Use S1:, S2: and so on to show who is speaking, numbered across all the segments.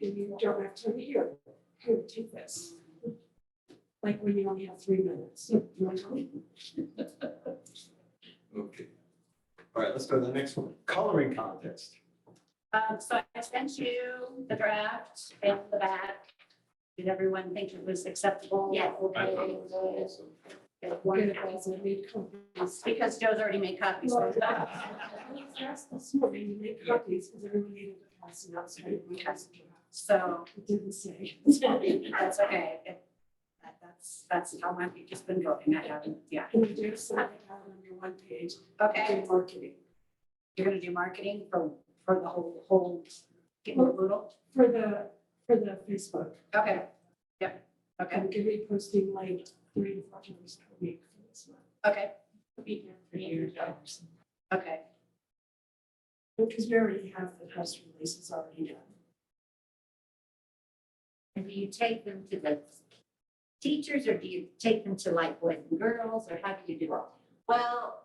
S1: you don't have time here, here, take this. Like when you only have three minutes, you know?
S2: Okay. All right, let's go to the next one. Coloring contest.
S3: Um, so I sent you the draft in the back. Did everyone think it was acceptable?
S4: Yes.
S3: Okay. Okay,
S1: Good,
S3: wonderful.
S1: as I made copies.
S3: Because Joe's already made copies. so-
S1: Well, that's This morning, you made copies, because everyone needed to pass it out, so everyone has it.
S3: So
S1: It didn't say.
S3: that's okay. It- that- That's, that's how my week has been going. I haven't, yeah.
S1: And you do sign it out on your one page,
S3: Okay,
S1: okay, marketing,
S3: you're gonna do marketing for, for the whole, whole, get a little?
S1: for the, for the Facebook.
S3: Okay. Yep, okay,
S1: I'm gonna be posting like three to four times per week for this month.
S3: okay,
S1: It'll be here for years.
S3: okay.
S1: Because we already have the press releases already done.
S4: And do you take them to the teachers or do you take them to like boys and girls or how do you do it?
S3: Well,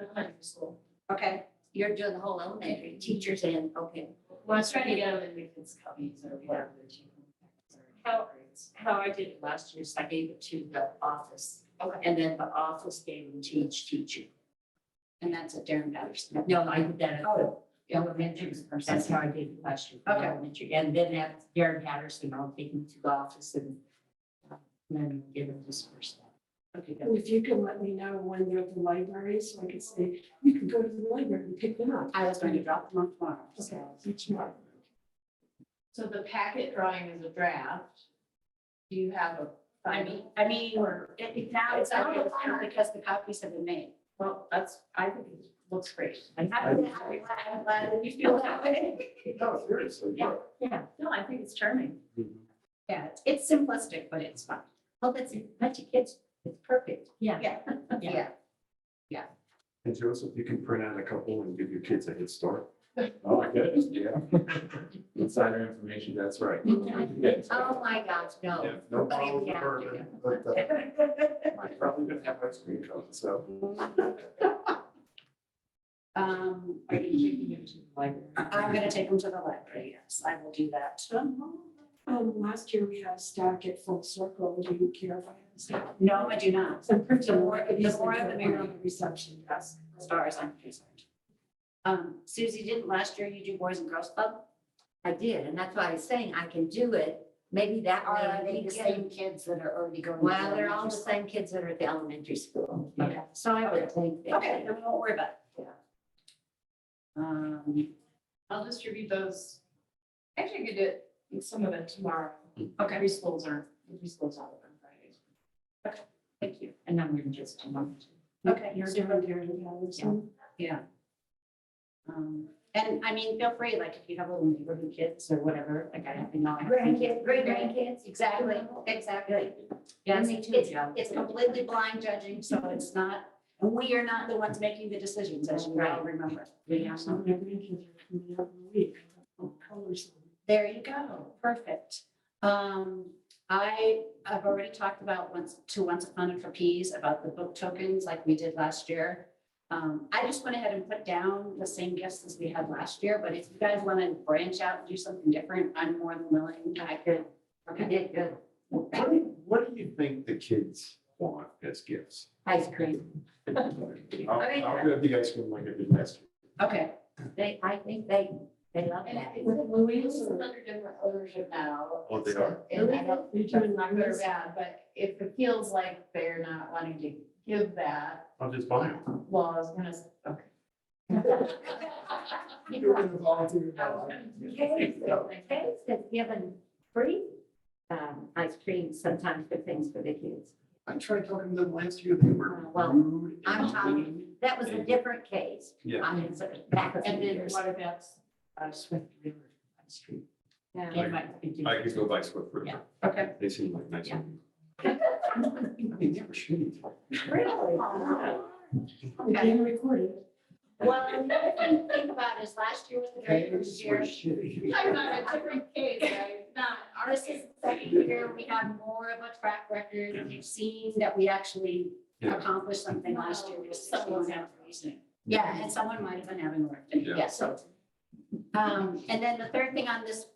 S4: Elementary school.
S3: okay,
S4: You're doing the whole elementary, teachers and, okay.
S5: Well, I was trying to get them in Nathan's copies or whatever. How, how I did it last year is I gave it to the office.
S3: Okay.
S5: And then the office gave them to each teacher.
S4: And that's at Darren Patterson.
S5: No, I did that at the
S4: Oh.
S5: elementary, that's how I did it last year, the
S3: Okay.
S5: elementary. And then at Darren Patterson, I'll take them to the office and uh, then give them this person. Okay,
S1: And if you can let me know when they're at the library, so I can say, you can go to the library and pick them up.
S3: I was going to drop them off tomorrow,
S1: Okay,
S3: so.
S1: each month.
S5: So the packet drawing is a draft. Do you have a
S3: I mean, I mean,
S5: Or-
S3: it- it- now it's out of line because the copies have been made.
S5: Well, that's, I think it looks great. I
S3: I'm glad, I'm glad that you feel that way.
S2: No, seriously. yeah.
S5: Yeah, no, I think it's charming.
S2: Mm-hmm.
S3: Yeah, it's- it's simplistic, but it's fun.
S4: Well, that's a bunch of kids. It's perfect.
S5: Yeah.
S3: Yeah.
S5: Yeah.
S3: Yeah,
S2: And Joseph, you can print out a couple and give your kids a head start. Oh, good, yeah. Insider information, that's right. Yes.
S4: Oh, my gosh, no.
S2: Yeah, No problem with
S4: Yeah.
S2: bourbon, but uh, I'm probably gonna have ice cream cone, so.
S3: um,
S5: Are you taking it to the library?
S3: I'm gonna take them to the library, yes, I will do that.
S1: Um, last year we had a stack at Full Circle, do you care if I have a stack?
S3: No, I do not,
S1: So pretty
S3: The more-
S1: I could
S3: the
S1: use
S3: more
S1: them
S3: the
S1: for
S3: merrier.
S1: on the Reception desk.
S3: as far as I'm concerned. Um, Susie, didn't last year you do Boys and Girls Club?
S4: I did, and that's why I was saying I can do it. Maybe that way.
S3: Are they
S4: we
S3: the
S4: get-
S3: same
S4: kids that are already going? Well, they're all the same kids that are at the elementary school.
S3: Okay.
S4: So I would think. that-
S3: Okay, then we won't worry about it. Um,
S5: I'll distribute those. Actually, I could do it, some of it tomorrow.
S3: Okay.
S5: Preschools are, preschools out on Fridays.
S3: thank you.
S5: And I'm gonna just tomorrow.
S3: Okay.
S1: You're doing there, you have some.
S3: Um, and I mean, feel free, like, if you have little neighborhood kids or whatever, like, I have, you know. I have
S4: Grandkids, great
S3: grandkids.
S4: grandkids.
S3: Exactly, exactly.
S4: Yeah,
S3: Yes,
S4: me too,
S3: it's,
S4: Joe.
S3: it's completely blind judging, so it's not, and we are not the ones making the decisions, as you all
S4: Right.
S3: remember.
S4: Yeah.
S1: So I'm never making it coming out in a week. What colors?
S3: There you go, perfect. Um, I, I've already talked about once, to Once Upon a Trapeze, about the book tokens like we did last year. Um, I just went ahead and put down the same gifts as we had last year, but if you guys want to branch out and do something different, I'm more than willing, I could.
S4: You
S3: Okay,
S4: did good.
S2: What do you- what do you think the kids want as gifts?
S4: Ice cream.
S2: I'll, I'll go with the ice cream like I did last year.
S3: okay,
S4: They, I think they, they love
S5: And
S4: that.
S5: it's
S1: With Louis
S5: it's
S1: or?
S5: under different ownership now.
S2: Oh, they are?
S5: And I don't
S1: You're
S5: That's
S1: doing
S5: not good or
S1: numbers.
S5: bad, but if it feels like they're not wanting to give that,
S2: I'll just buy them.
S5: well, I was gonna, s- okay.
S2: You're gonna volunteer.
S1: uh,
S4: Kay's Kay's has given free um, ice cream sometimes for things for the kids.
S2: I tried talking to them last year, they were
S4: Uh, well,
S2: rude. and
S4: I'm talking-
S2: mean.
S4: That was a different case.
S2: Yeah.
S4: I mean, so back a few
S5: And then
S4: years.
S5: what about, uh, Swift River Street?
S4: Yeah.
S5: They might be doing-
S2: I could go by Swift River.
S5: Yeah. Okay.
S2: They seem like nice
S4: Yeah.
S2: people. I mean, they were shitty.
S1: Really? We can record it.
S3: well, another thing to think about is last year was the very first
S2: They were
S3: year.
S2: shitty.
S5: I'm not a different case, right?
S3: not, ours is the second year, we have more of a track record, and we've seen that we actually
S2: Yeah.
S3: accomplished something last year. with six months out.
S5: reasoning.
S3: Yeah, and someone might have been having work,
S2: Yeah.
S3: yeah, so. Um, and then the third thing on this